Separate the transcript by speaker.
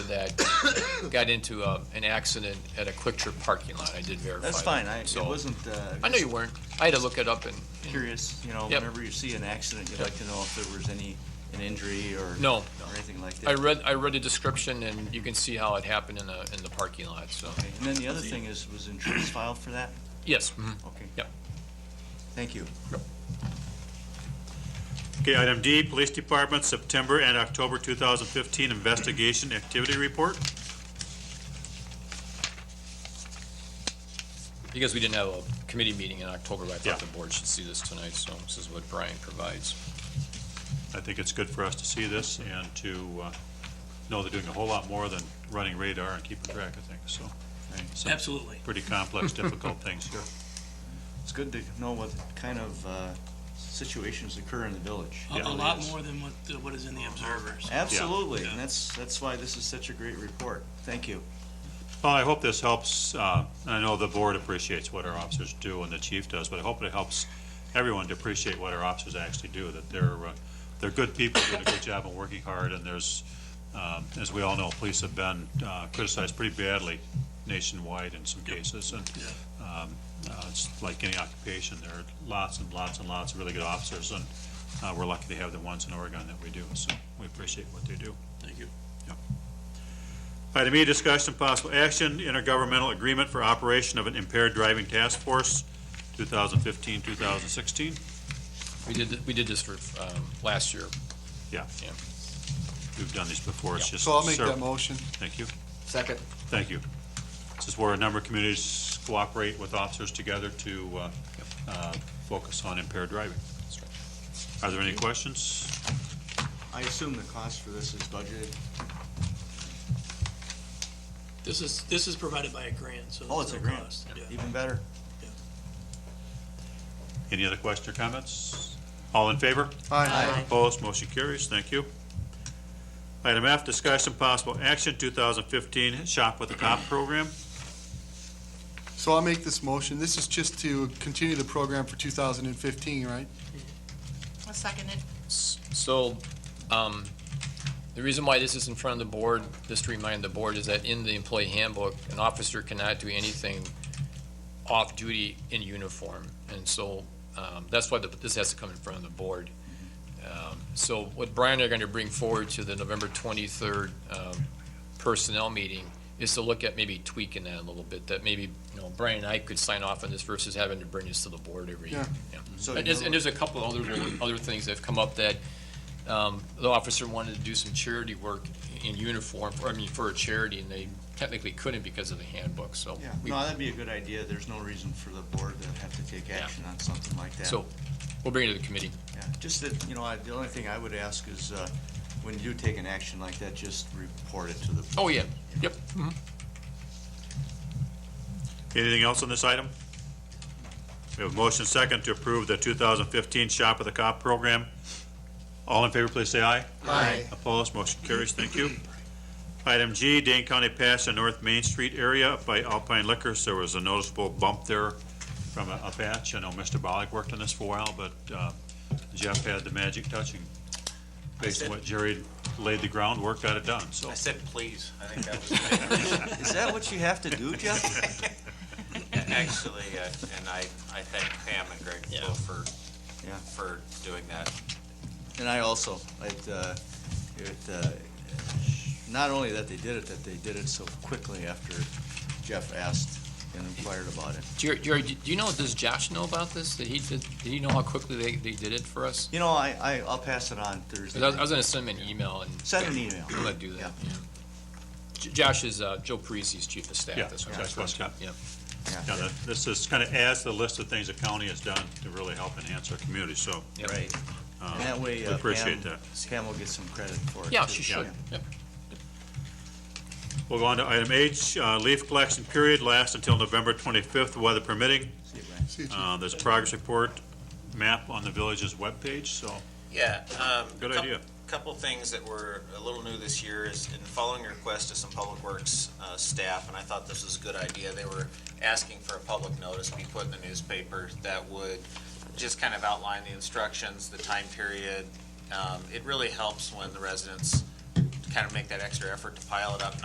Speaker 1: that got into uh, an accident at a Quick Trip parking lot. I did verify.
Speaker 2: That's
Speaker 1: that.
Speaker 2: fine, I, it
Speaker 1: So-
Speaker 2: wasn't, uh,
Speaker 1: I know you weren't. I had to look it up and, and-
Speaker 2: curious, you know,
Speaker 1: Yep.
Speaker 2: whenever you see an accident, you'd
Speaker 1: Yep.
Speaker 2: like to know if there was any, an injury or.
Speaker 1: No.
Speaker 2: Or anything like that.
Speaker 1: I read, I read the description and you can see how it happened in the, in the parking lot, so.
Speaker 2: Okay, And then the other thing is, was insurance filed for that?
Speaker 1: Yes, mhm.
Speaker 2: Okay.
Speaker 1: Yep.
Speaker 2: Thank you.
Speaker 3: Okay, item D, Police Department, September and October 2015 Investigation Activity Report.
Speaker 1: because we didn't have a committee meeting in October, I
Speaker 3: Yeah.
Speaker 1: thought the board should see this tonight, so this is what Brian provides.
Speaker 3: I think it's good for us to see this and to uh, know they're doing a whole lot more than running radar and keeping track of things, so. some
Speaker 4: Absolutely.
Speaker 3: Pretty complex, difficult things here.
Speaker 2: It's good to know what kind of uh, situations occur in the village.
Speaker 4: A-
Speaker 3: Yeah.
Speaker 4: A lot more than what, uh, what is in the observers.
Speaker 2: Absolutely,
Speaker 4: Yeah.
Speaker 2: and that's, that's why this is such a great report. Thank you.
Speaker 3: Well, I hope this helps, uh, I know the board appreciates what our officers do and the chief does, but I hope it helps everyone to appreciate what our officers actually do, that they're, uh, they're good people, doing a good job and working hard, and there's, um, as we all know, police have been uh, criticized pretty badly nationwide in some cases, and um, uh, it's like any occupation, there are lots and lots and lots of really good officers, and uh, we're lucky to have the ones in Oregon that we do, so we appreciate what they do.
Speaker 4: Thank you.
Speaker 3: Item E, discussion and possible action, intergovernmental agreement for operation of an impaired driving task force, 2015, 2016.
Speaker 1: We did, th- we did this for, um, last year.
Speaker 3: Yeah.
Speaker 1: Yeah.
Speaker 3: We've done these before, it's just.
Speaker 5: So I'll make
Speaker 3: ser-
Speaker 5: that motion.
Speaker 3: Thank you,
Speaker 5: Second.
Speaker 3: thank you. This is where a number of communities cooperate with officers together to uh, uh, focus on impaired driving.
Speaker 1: right.
Speaker 3: Are there any questions?
Speaker 2: I assume the cost for this is budgeted?
Speaker 4: This is, this is provided by a grant, so.
Speaker 2: Oh,
Speaker 4: there's
Speaker 2: it's a
Speaker 4: no
Speaker 2: grant.
Speaker 4: cost. Yeah.
Speaker 2: Even better.
Speaker 1: Mm-hmm.
Speaker 3: Any other questions or comments? All in favor? Opposed, motion carries, thank you. Item F, discussion possible action, 2015 Shop with a Cop program.
Speaker 5: So I'll make this motion. This is just to continue the program for 2015, right?
Speaker 6: I'll second it.
Speaker 1: S- So, um, the reason why this is in front of the board, just to remind the board, is that in the employee handbook, an officer cannot do anything off-duty in uniform. And so, um, that's why the- this has to come in front of the board. Um, So what Brian and I are gonna bring forward to the November twenty-third, um, personnel meeting is to look at maybe tweaking that a little bit, that maybe, you know, Brian and I could sign off on this versus having to bring this to the board every year. Yeah.
Speaker 5: Yeah.
Speaker 2: So
Speaker 1: And
Speaker 2: you
Speaker 1: there's, and there's a couple other, other things that have come up that, um, the officer wanted to do some charity work in uniform, or, I mean, for a charity, and they technically couldn't because of the handbook, so.
Speaker 2: Yeah,
Speaker 1: we-
Speaker 2: no, that'd be a good idea. There's no reason for the board to have to take action on something like that.
Speaker 1: So, we'll bring it to the committee.
Speaker 2: Yeah, just that, you know, I, the only thing I would ask is, uh, when you do take an action like that, just report it to the.
Speaker 1: Oh, yeah, yep.
Speaker 3: Anything else on this item? We have a motion second to approve the 2015 Shop with a Cop program. All in favor, please say aye.
Speaker 5: Aye.
Speaker 3: Opposed, motion carries, thank you. Item G, Dane County Pass and North Main Street area by Alpine Liquors, there was a noticeable bump there from a a patch. I know Mr. Bollig worked on this for a while, but uh, Jeff had the magic touching. Based on what Jerry laid the groundwork, got it done, so.
Speaker 7: I said, please. I think that was
Speaker 2: Is that what you have to do, Jeff?
Speaker 7: actually, uh, and I, I thank Pam and Greg Blow for,
Speaker 2: Yeah.
Speaker 7: for doing that.
Speaker 2: And I also, it, uh, it, uh, not only that they did it, that they did it so quickly after Jeff asked and inquired about it.
Speaker 1: Jerry, Jerry, do do you know, does Josh know about this? Did he, did, did he know how quickly they, they did it for us?
Speaker 2: You know, I, I, I'll pass it on Thursday.
Speaker 1: 'Cause I was- I was gonna send him an email and.
Speaker 2: Send an email.
Speaker 1: I'm gonna do that,
Speaker 2: Yeah.
Speaker 1: yeah. J- Josh is, uh, Joe Parisi's chief of staff.
Speaker 3: Yeah,
Speaker 1: that's what I'm
Speaker 3: that's what's
Speaker 1: referring
Speaker 3: up.
Speaker 1: to. Yeah.
Speaker 3: Yeah,
Speaker 2: Yeah.
Speaker 3: that- this is kind of adds to the list of things the county has done to really help enhance our community, so.
Speaker 1: Yep.
Speaker 2: Right.
Speaker 3: uh,
Speaker 2: And that way,
Speaker 3: we
Speaker 2: uh,
Speaker 3: Appreciate
Speaker 2: Pam,
Speaker 3: that.
Speaker 2: Pam will get some credit for it.
Speaker 1: Yeah,
Speaker 2: too.
Speaker 1: she should, yep.
Speaker 3: We'll go on to item H, uh, leaf collection period lasts until November 25th, weather permitting.
Speaker 2: See it, Brian.
Speaker 5: See you, Chief.
Speaker 3: Uh, There's a progress report map on the village's webpage, so
Speaker 7: Yeah. um,
Speaker 3: Good
Speaker 7: coup-
Speaker 3: idea.
Speaker 7: Couple things that were a little new this year is in following request to some public works uh, staff, and I thought this was a good idea. They were asking for a public notice to be put in the newspaper that would just kind of outline the instructions, the time period. Um, It really helps when the residents kind of make that extra effort to pile it up